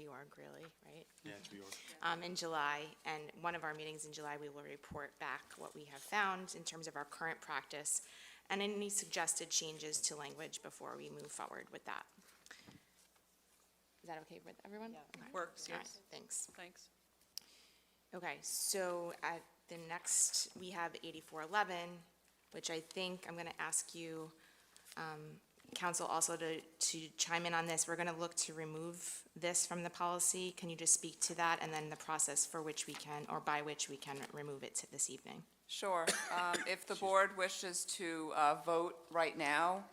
org, really, right? Yeah, it's reorg. um, in July, and one of our meetings in July, we will report back what we have found in terms of our current practice and any suggested changes to language before we move forward with that. Is that okay with everyone? Okay. Works, All right, yes. Thanks. Thanks. Okay, so at the next, we have 8411, which I think I'm going to ask you, um, council, also to to chime in on this. We're going to look to remove this from the policy. Can you just speak to that and then the process for which we can, or by which we can remove it this evening? Sure. Um, If the board wishes to uh, vote right now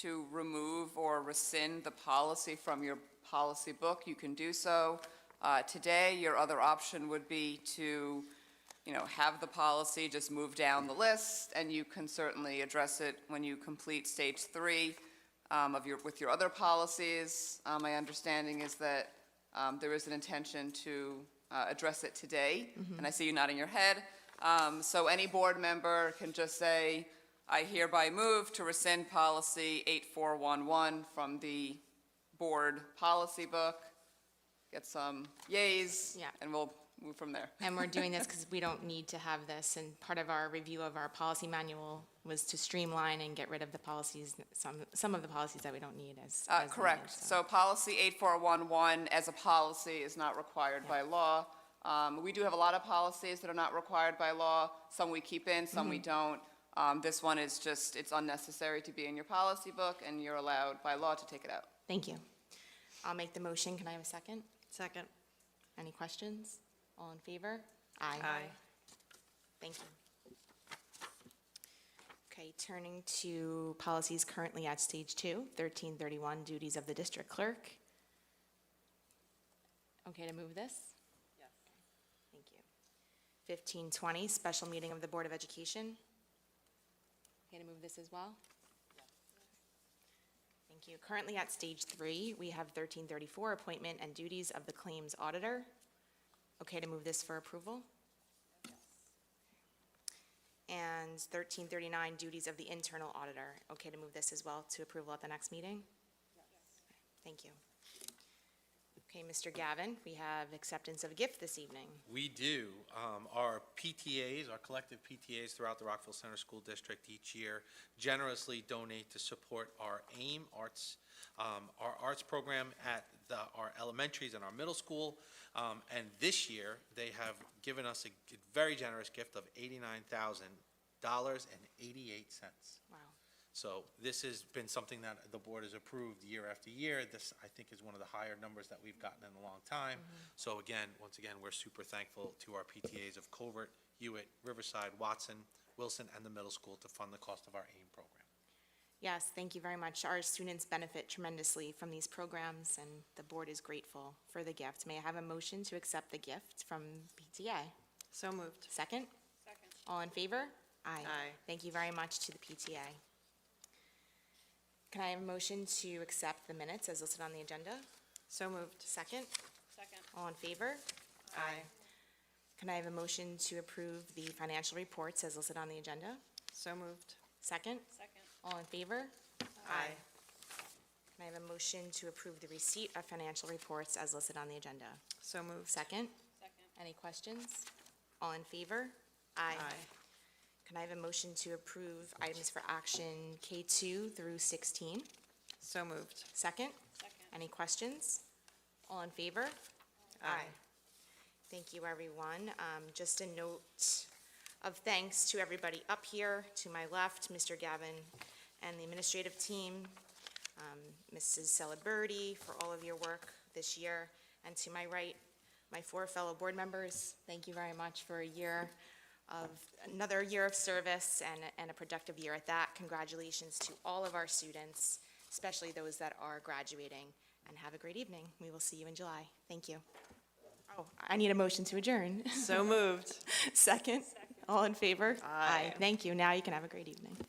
to remove or rescind the policy from your policy book, you can do so. Uh, Today, your other option would be to, you know, have the policy just move down the list, and you can certainly address it when you complete stage three um, of your, with your other policies. Uh, My understanding is that um, there is an intention to uh, address it today, Mm-hmm. and I see you nodding your head. Um, So any board member can just say, I hereby move to rescind policy 8411 from the board policy book. Get some yays. Yeah. And we'll move from there. And we're doing this because we don't need to have this, and part of our review of our policy manual was to streamline and get rid of the policies, some, some of the policies that we don't need as. Uh, as Correct. needed, So policy 8411 as a policy is not required by law. Um, We do have a lot of policies that are not required by law. Some we keep in, some we don't. Um, This one is just, it's unnecessary to be in your policy book, and you're allowed by law to take it out. Thank you. I'll make the motion. Can I have a second? Second. Any questions? All in favor? Aye. Thank you. Okay, turning to policies currently at stage two, 1331, duties of the district clerk. Okay to move this? Yes. Thank you. 1520, special meeting of the Board of Education. Okay to move this as well? Thank you. Currently at stage three, we have 1334, appointment and duties of the claims auditor. Okay to move this for approval? And 1339, duties of the internal auditor. Okay to move this as well to approval at the next meeting? Thank you. Okay, Mr. Gavin, we have acceptance of gift this evening. We do. Um, Our PTAs, our collective PTAs throughout the Rockville Center School District each year generously donate to support our AIM Arts, um, our arts program at the, our elementaries and our middle school. Um, And this year, they have given us a g- very generous gift of eighty-nine thousand dollars and eighty-eight cents. Wow. So this has been something that the board has approved year after year. This, I think, is one of the higher numbers that we've gotten in a long time. So again, once again, we're super thankful to our PTAs of Covert, Hewitt, Riverside, Watson, Wilson, and the middle school to fund the cost of our AIM program. Yes, thank you very much. Our students benefit tremendously from these programs, and the board is grateful for the gift. May I have a motion to accept the gift from PTA? So moved. Second? Second. All in favor? Aye. Aye. Thank you very much to the PTA. Can I have a motion to accept the minutes as listed on the agenda? So moved. Second? Second. All in favor? Aye. Can I have a motion to approve the financial reports as listed on the agenda? So moved. Second? Second. All in favor? Aye. Can I have a motion to approve the receipt of financial reports as listed on the agenda? So moved. Second? Second. Any questions? All in favor? Aye. Can I have a motion to approve items for action K2 through 16? So moved. Second? Second. Any questions? All in favor? Aye. Thank you, everyone. Um, Just a note of thanks to everybody up here, to my left, Mr. Gavin and the administrative team, um, Mrs. Celebrity for all of your work this year, and to my right, my four fellow board members, thank you very much for a year of, another year of service and, and a productive year at that. Congratulations to all of our students, especially those that are graduating, and have a great evening. We will see you in July. Thank you. Oh, I need a motion to adjourn. So moved. Second? All in favor? Aye. Thank you. Now you can have a great evening.